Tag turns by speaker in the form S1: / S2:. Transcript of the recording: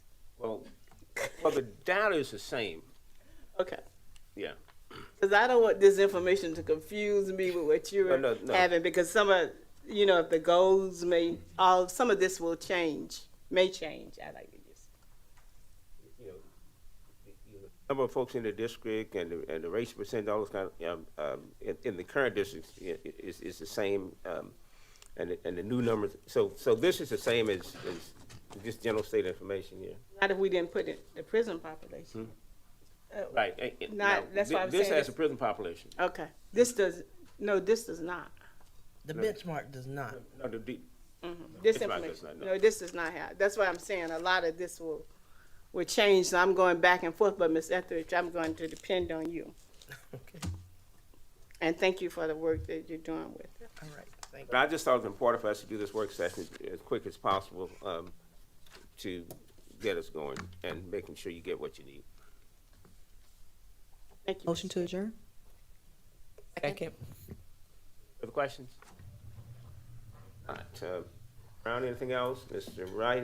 S1: Well, the data is the same.
S2: Okay.
S1: Yeah.
S2: Because I don't want this information to confuse me with what you're
S1: No, no, no.
S2: having. Because some of, you know, if the goals may, all some of this will change, may change. I like to use.
S1: you know, the- you know, number of folks in the district and the, and the race percent, all those kind of, um, um, in, in the current district i- i- is, is the same, um, and, the- and the new numbers, so, so this is the same as, as just general state information here.
S2: Not if we didn't put it the prison population.
S1: Right. eh, eh,
S2: Not-
S1: now,
S2: that's
S1: thi-
S2: why I'm
S1: This
S2: saying
S1: has a
S2: it's-
S1: prison population.
S2: Okay. This does no. This does not.
S3: The benchmark does not.
S1: No, the D-
S2: This
S1: It's right,
S2: information.
S1: that's not-
S2: no.
S1: no.
S2: this does not have. That's why I'm saying a lot of this will will change. So I'm going back and forth. But Ms. Etheridge, I'm going to depend on you.
S3: Okay,
S2: And thank you for the work that you're doing with it.
S3: all right, thank
S1: But I just thought it was important for us to do this work session as quick as possible, um, to get us going and making sure you get what you need.
S2: Thank you.
S4: Motion to adjourn?
S3: you.
S1: Other questions? All right, uh, Brown, anything else? Mr. Wright,